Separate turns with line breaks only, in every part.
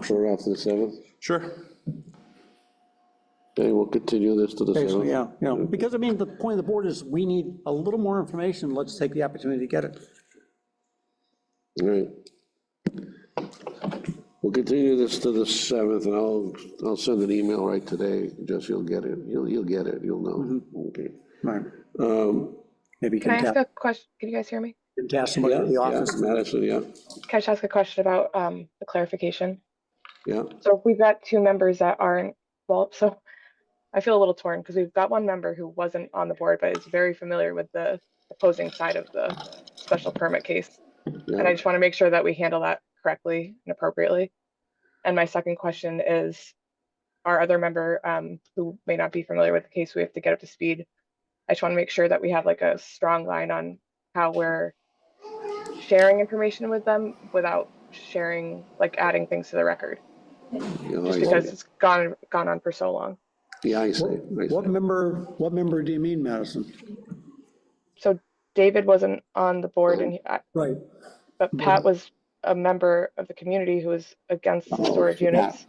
Put it off to the seventh.
Sure.
Okay, we'll continue this to the
Basically,
seventh.
yeah, yeah, because I mean, the point of the board is we need a little more information, let's take the opportunity to get it.
All right. We'll continue this to the seventh, and I'll, I'll send an email right today, Jesse, you'll get it, you'll, you'll get it, you'll know.
Mm-hmm.
Okay.
Right.
Um,
Maybe you
Can I
can
ask
tap,
a question? Can you guys hear me?
you can tap somebody
Yeah,
at the
yeah,
office.
Madison, yeah,
Can I just ask a question about um, the clarification?
yeah,
So if we've got two members that aren't, well, so I feel a little torn because we've got one member who wasn't on the board, but is very familiar with the opposing side of the special permit case. And I
yeah.
just want to make sure that we handle that correctly and appropriately. And my second question is, our other member um, who may not be familiar with the case, we have to get up to speed. I just want to make sure that we have like a strong line on how we're sharing information with them without sharing, like adding things to the record,
yeah, I
just
see.
because it's gone, gone on for so long.
Yeah, I see, I see.
What member, what member do you mean, Madison?
So David wasn't on the board and, he- I-
Right.
but Pat was a member of the community who was against storage units.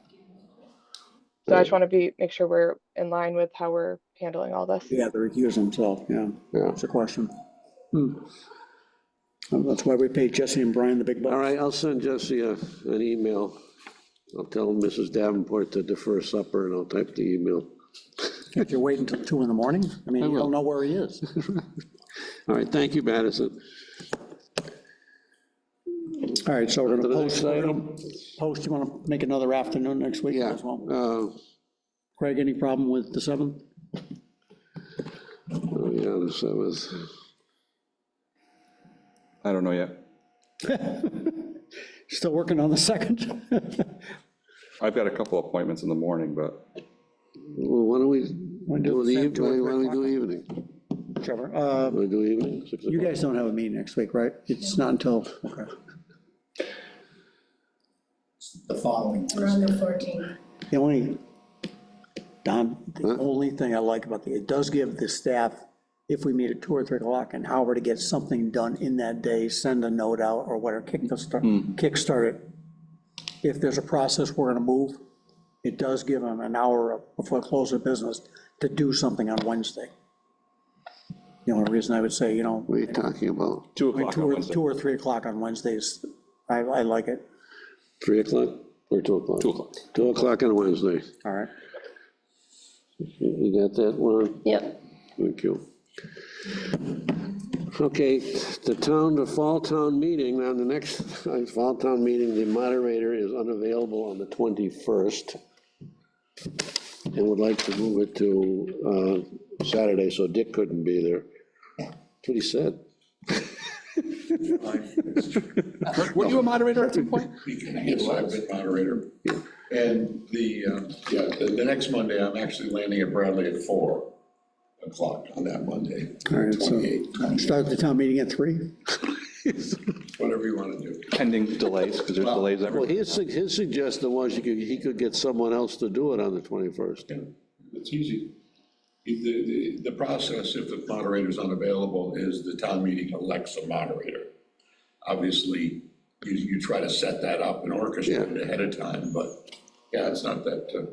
So I just want to be, make sure we're in line with how we're handling all this.
Yeah, the recuse himself, yeah,
Yeah.
that's a question. Hmm. And That's why we paid Jesse and Brian the big
All
bucks.
right, I'll send Jesse a- an email. I'll tell Mrs. Davenport to defer supper, and I'll type the email.
If you're waiting until two in the morning, I mean, you
will.
don't know where he is.
All right, thank you, Madison.
All right, so
To
we're gonna
the
post,
next item?
post, you wanna make another afternoon next week
Yeah.
as well?
uh,
Craig, any problem with the seventh?
Oh, yeah, the seventh.
I don't know yet.
Still working on the second?
I've got a couple appointments in the morning, but
Well, why don't we do the
seven,
evening,
do it
why don't we do evening?
Trevor, uh,
Want to do evening? Six
you
o'clock?
guys don't have a meeting next week, right? It's not until, okay.
the following.
We're on the fourteenth.
The only, Don, the only thing I like about the, it does give the staff, if we meet at two or three o'clock, an hour to get something done in that day, send a note out or whatever, kick the start,
Hmm.
kickstart it. If there's a process we're gonna move, it does give them an hour before close of business to do something on Wednesday. The only reason I would say, you know,
What are you talking about?
2
like
o'clock
two
on
or,
Wednesday.
two or three o'clock on Wednesdays, I, I like it,
Three o'clock or two o'clock?
Two o'clock.
Two o'clock on Wednesday.
all right?
You you got that one?
Yep.
Thank you. Okay, the town, the fall town meeting, now the next uh, fall town meeting, the moderator is unavailable on the 21st and would like to move it to uh, Saturday, so Dick couldn't be there. That's what he said.
Were you a moderator at some point?
Yes, I've been moderator. And the, um, yeah, the, the next Monday, I'm actually landing at Bradley at four o'clock on that Monday.
All right, so,
28,
start the town meeting at three?
Whatever you want to do.
Pending delays, because there's delays everywhere.
Well, his, sug- his suggestion was you could, he could get someone else to do it on the 21st.
Yeah, It's easy. The, the, the process, if the moderator's unavailable, is the town meeting elects a moderator. Obviously, you, you try to set that up and orchestrate it ahead of time, but yeah, it's not that, uh,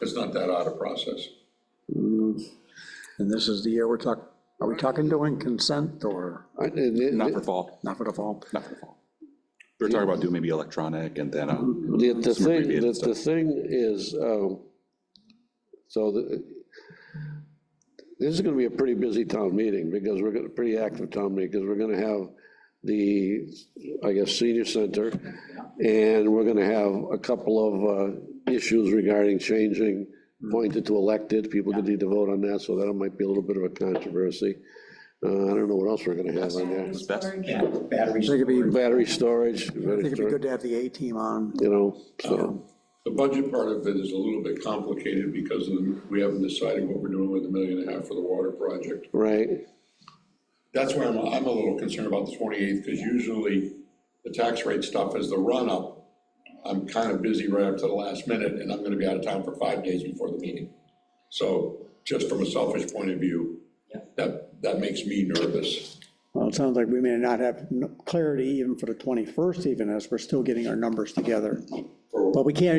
it's not that odd a process.
And this is the year we're talking, are we talking doing consent or
I- and it-
Not for fall,
not for the fall?
not for fall. We were talking about doing maybe electronic and then, um,
The, the
Some
thing,
abbreviated
the, the thing is, um, so the, this is gonna be a pretty busy town meeting, because we're gonna, pretty active town meeting, because we're gonna have the, I guess, senior center, and we're gonna have a couple of, uh, issues regarding changing appointed to elected, people could need to vote on that, so that might be a little bit of a controversy. Uh, I don't know what else we're gonna have on there.
I
Batteries.
think it'd be, I
Battery storage,
think
battery
it'd be
storage,
good to have the A-team on.
you know, so,
The budget part of it is a little bit complicated because of the- we haven't decided what we're doing with the million and a half for the water project.
right?
That's where I'm, I'm a little concerned about the 28th because usually the tax rate stuff is the run-up. I'm kind of busy right up to the last minute and I'm going to be out of town for five days before the meeting. So just from a selfish point of view, that, that makes me nervous.
Well, it sounds like we may not have n- clarity even for the 21st even as we're still getting our numbers together. But we can't